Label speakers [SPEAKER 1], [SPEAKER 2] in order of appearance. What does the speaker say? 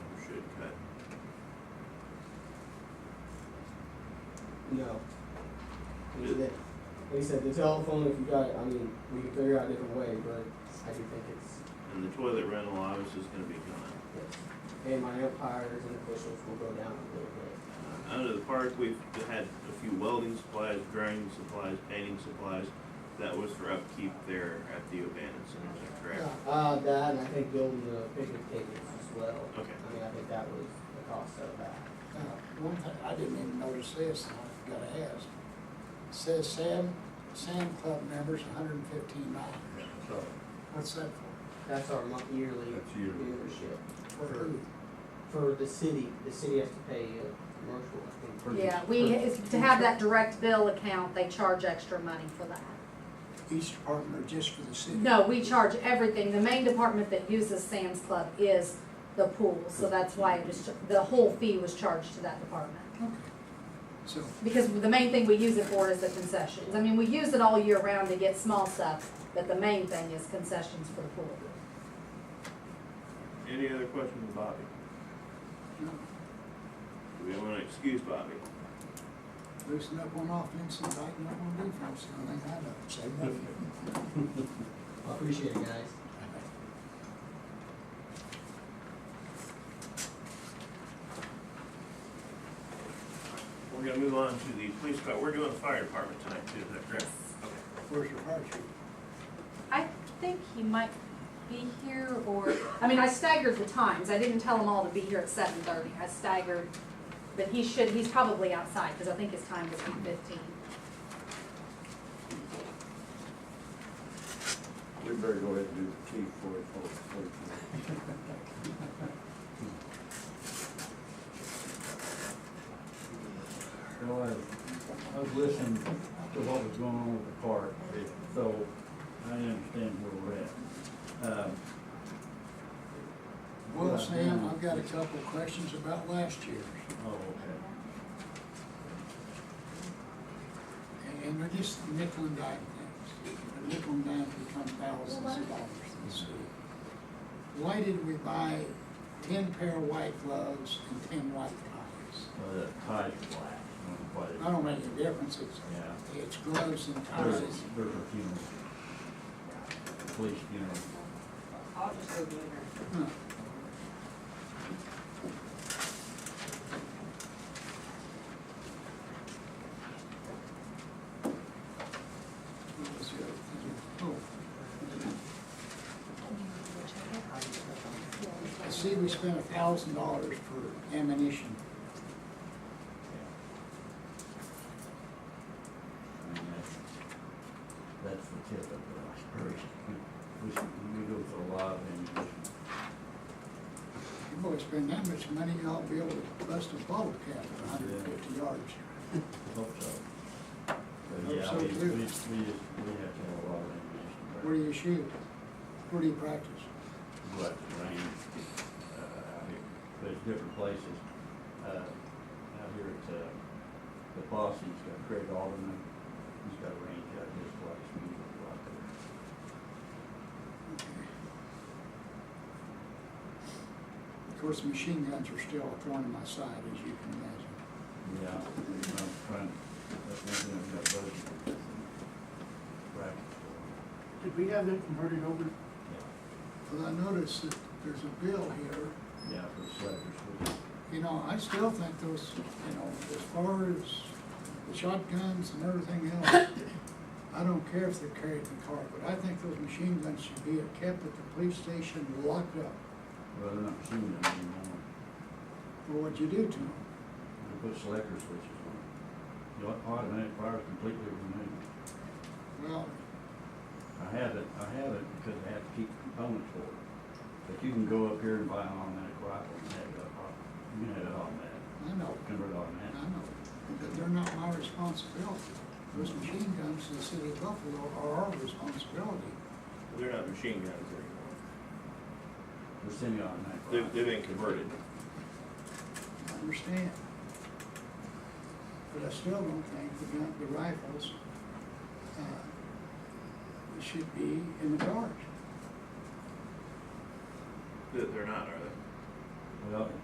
[SPEAKER 1] No. He didn't. He said the telephone, if you got it, I mean, we can figure out a different way, but I do think it's,
[SPEAKER 2] And the toilet rental obviously is gonna be coming.
[SPEAKER 1] it's, and my umpires and officials will go down a little bit.
[SPEAKER 2] Uh, Out of the park, we've had a few welding supplies, grinding supplies, painting supplies. That was for upkeep there at the abandoned center, is that correct?
[SPEAKER 1] Uh, that, and I think building the picnic tables as well.
[SPEAKER 2] Okay.
[SPEAKER 1] I mean, I think that was the cost of that.
[SPEAKER 3] Now, Uh, one thing, I didn't even notice this, and I gotta ask. It Says Sam, Sam Club members, hundred and fifteen dollars.
[SPEAKER 4] So,
[SPEAKER 3] What's that for?
[SPEAKER 1] That's our month yearly
[SPEAKER 4] That's yearly.
[SPEAKER 1] membership.
[SPEAKER 3] For who?
[SPEAKER 1] For the city, the city has to pay a commercial, I think.
[SPEAKER 4] purchase-
[SPEAKER 5] Yeah, we, it's- to have that direct bill account, they charge extra money for that.
[SPEAKER 3] Each department or just for the city?
[SPEAKER 5] No, we charge everything. The main department that uses Sam's Club is the pool, so that's why it was, the whole fee was charged to that department.
[SPEAKER 3] Okay. So,
[SPEAKER 5] Because the main thing we use it for is the concessions. I mean, we use it all year round to get small stuff, but the main thing is concessions for the pool.
[SPEAKER 2] Any other questions, Bobby?
[SPEAKER 3] no,
[SPEAKER 2] Do we wanna excuse Bobby?
[SPEAKER 3] loosen up on offense and tighten up on defense, the only thing I know, say nothing.
[SPEAKER 1] I appreciate it, guys.
[SPEAKER 2] We're gonna move on to the police car. We're doing the fire department tonight too, is that correct?
[SPEAKER 3] Where's your fire chief?
[SPEAKER 5] I think he might be here or, I mean, I staggered the times. I didn't tell them all to be here at seven thirty. I staggered, but he should, he's probably outside because I think his time was eight fifteen.
[SPEAKER 4] We better go ahead and do the chief for it, for it, for it.
[SPEAKER 6] You know, I, I was listening to what was going on with the park, so I understand where we're at. Um,
[SPEAKER 3] Well, Sam, I've got a couple of questions about last year's,
[SPEAKER 6] oh, okay.
[SPEAKER 3] and, and they're just nickel and dime things. They're Nickel and dime become thousands of dollars this year. Why did we buy ten pair of white gloves and ten white ties?
[SPEAKER 6] Well, that tie's black, I don't know
[SPEAKER 3] I
[SPEAKER 6] what
[SPEAKER 3] don't make any difference, it's,
[SPEAKER 6] Yeah.
[SPEAKER 3] it's gloves and
[SPEAKER 6] it, there's,
[SPEAKER 3] ties.
[SPEAKER 6] there's a funeral. Police funeral.
[SPEAKER 7] I'll just go get her.
[SPEAKER 3] Huh. What was the other thing? Oh. I see we spent a thousand dollars for ammunition.
[SPEAKER 6] I mean, that's, that's the tip of the iceberg. We, should- we go through a lot of ammunition.
[SPEAKER 3] You boys spend that much money, y'all be able to bust a bottle cap at hundred and fifty yards.
[SPEAKER 6] Hope so.
[SPEAKER 3] Hope
[SPEAKER 6] But yeah,
[SPEAKER 3] so,
[SPEAKER 6] we, we,
[SPEAKER 3] too.
[SPEAKER 6] we just, we have to have a lot of ammunition. but-
[SPEAKER 3] Where do you shoot? Where do you practice?
[SPEAKER 6] what range, uh, out here. There's different places, uh, out here at, uh, the boss, he's got Craig Alderman, he's got a range out at his place, we can go out there.
[SPEAKER 3] Of course, machine guns are still a thorn in my side, as you can imagine.
[SPEAKER 6] Yeah, I'm trying, that's one thing I've got budgeted. Practice for.
[SPEAKER 8] Did we have that converted over?
[SPEAKER 6] Yeah,
[SPEAKER 3] But I noticed that there's a bill here,
[SPEAKER 6] yeah, for selectors, we-
[SPEAKER 3] you know, I still think those, you know, as far as the shotguns and everything else, I don't care if they're carried in the car, but I think those machine guns should be kept at the police station locked up
[SPEAKER 6] well, they're not shooting them anymore,
[SPEAKER 3] for what you do to them.
[SPEAKER 6] we put selector switches on. The au- automatic fire is completely removed.
[SPEAKER 3] Well,
[SPEAKER 6] I haven't, I haven't because I have to keep components for it. But you can go up here and buy an automatic rifle and have it up, you can have it automatic,
[SPEAKER 3] I know,
[SPEAKER 6] convert
[SPEAKER 3] I
[SPEAKER 6] automatic.
[SPEAKER 3] know, but they're not my responsibility. Those machine guns in the city of Buffalo are our responsibility.
[SPEAKER 2] They're not machine guns anymore.
[SPEAKER 6] The semi-automatic
[SPEAKER 2] They've,
[SPEAKER 6] rifle.
[SPEAKER 2] they've been converted.
[SPEAKER 3] I understand. But I still don't think the gun, the rifles, uh, should be in the cars.
[SPEAKER 2] They're they're not, are they?
[SPEAKER 6] Well,